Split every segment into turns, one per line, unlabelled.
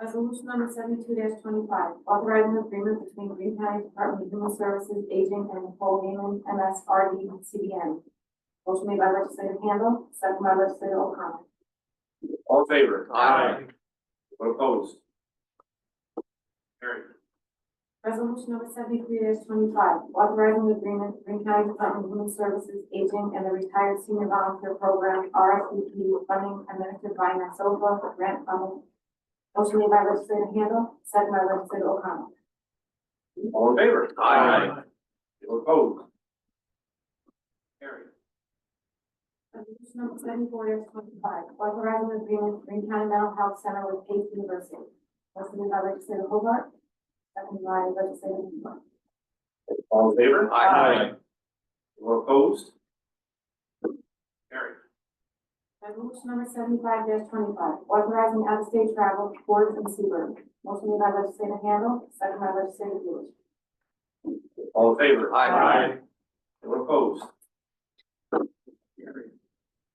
Resolution number seventy-two twenty-five, authorizing agreement between Green County Department of Human Services, Aging and Nicole Heyman, MSRD, CDN. Motion made by legislator Handle, second by legislator O'Connor.
All in favor?
Aye.
Anyone opposed? Carried.
Resolution number seventy-three twenty-five, authorizing agreement between County Department of Human Services, Aging and the Retired Senior Volunteer Program, RSVP, funding administered by NASOFA for grant funding. Motion made by legislator Handle, second by legislator O'Connor.
All in favor?
Aye.
Anyone opposed? Carried.
Resolution number seventy-four twenty-five, authorizing agreement between County Mental Health Center with Case University. Motion made by legislator Hobart, second by legislator Lewis.
All in favor?
Aye.
Anyone opposed? Carried.
Resolution number seventy-five twenty-five, authorizing out-of-state travel to Fort and Seaburg. Motion made by legislator Handle, second by legislator Lewis.
All in favor?
Aye.
Anyone opposed? Carried.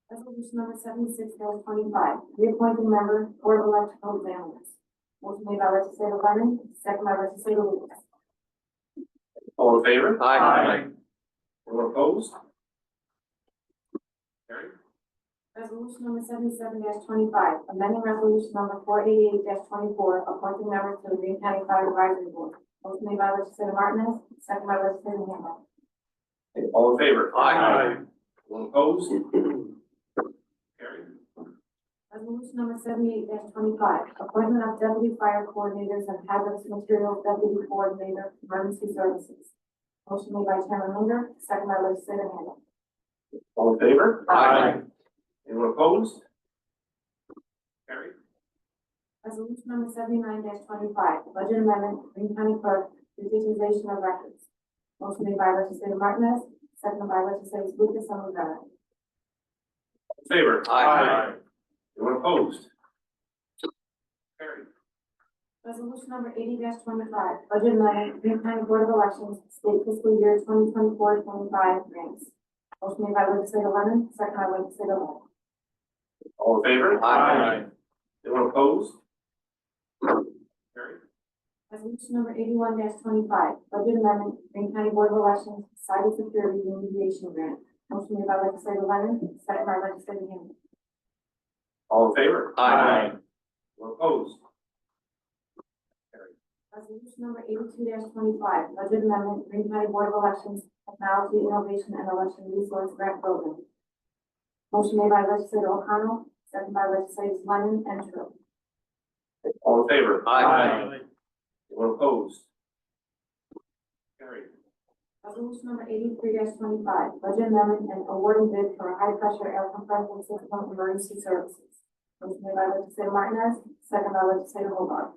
Resolution number seventy-six twenty-five, reappointing member Board of Electrical Examiners. Motion made by legislator Lennon, second by legislator Lewis.
All in favor?
Aye.
Anyone opposed? Carried.
Resolution number seventy-seven twenty-five, amending resolution number four eighty-eight twenty-four, appointing members to the Green County Fire Advisory Board. Motion made by legislator Martinez, second by legislator Handle.
All in favor?
Aye.
Anyone opposed? Carried.
Resolution number seventy-eight twenty-five, appointment of deputy fire coordinators and hazardous materials deputy coordinator, emergency services. Motion made by Chairman Linder, second by legislator Handle.
All in favor?
Aye.
Anyone opposed? Carried.
Resolution number seventy-nine twenty-five, budget amendment, Green County Clerk, digitization of records. Motion made by legislator Martinez, second by legislators Lucas and Rivera.
All in favor?
Aye.
Anyone opposed? Carried.
Resolution number eighty twenty-five, budget amendment, Green County Board of Elections, state fiscal year 2024-25 grants. Motion made by legislator Lemon, second by legislator Long.
All in favor?
Aye.
Anyone opposed? Carried.
Resolution number eighty-one twenty-five, budget amendment, Green County Board of Elections, cybersecurity remediation grant. Motion made by legislator Lemon, second by legislator Handle.
All in favor?
Aye.
Anyone opposed?
Resolution number eighty-two twenty-five, budget amendment, Green County Board of Elections, technology innovation and election resource grant program. Motion made by legislator O'Connell, second by legislators Lennon and Tru.
All in favor?
Aye.
Anyone opposed? Carried.
Resolution number eighty-three twenty-five, budget amendment and awarding bid for high-pressure air compression system emergency services. Motion made by legislator Martinez, second by legislator Hobart.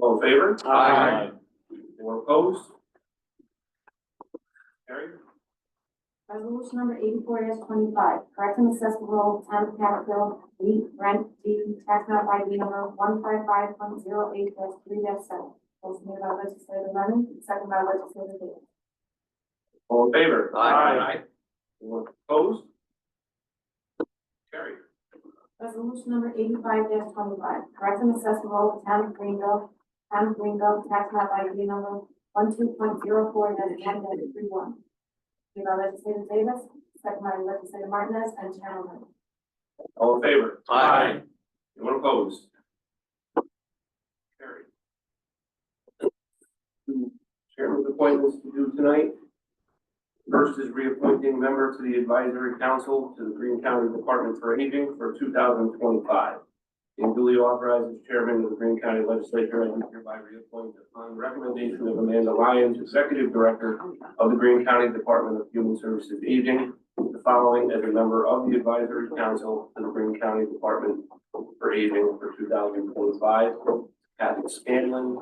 All in favor?
Aye.
Anyone opposed? Carried.
Resolution number eighty-four twenty-five, correcting accessible town of Capitol, week rent due tax map ID number one five five point zero eight three seven. Motion made by legislator Lennon, second by legislator Davis.
All in favor?
Aye.
Anyone opposed? Carried.
Resolution number eighty-five twenty-five, correct and accessible town of Greenville, town of Greenville, tax map ID number one two point zero four dash ten dash three one. Made by legislator Davis, second by legislator Martinez and Chairman Linder.
All in favor?
Aye.
Anyone opposed? Carried. Two Chairman's appointments to do tonight. First is reappointing member to the advisory council to the Green County Department for Aging for two thousand twenty-five. And duly authorized as chairman of the Green County Legislature, I do hereby reappoint upon recommendation of Amanda Lyons, executive director of the Green County Department of Human Services Aging, the following as a member of the advisory council to the Green County Department for Aging for two thousand twenty-five. Kathy Scanlon,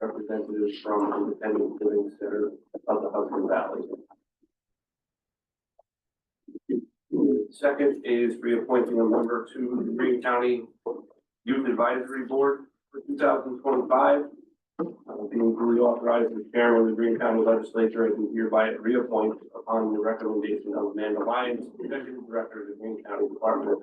representative from Independent Living Center of the Hudson Valley. Second is reappointing a member to the Green County Youth Advisory Board for two thousand twenty-five. Uh, Being duly authorized as chairman of the Green County Legislature, I do hereby reappoint upon the recommendation of Amanda Lyons, executive director of the Green County Department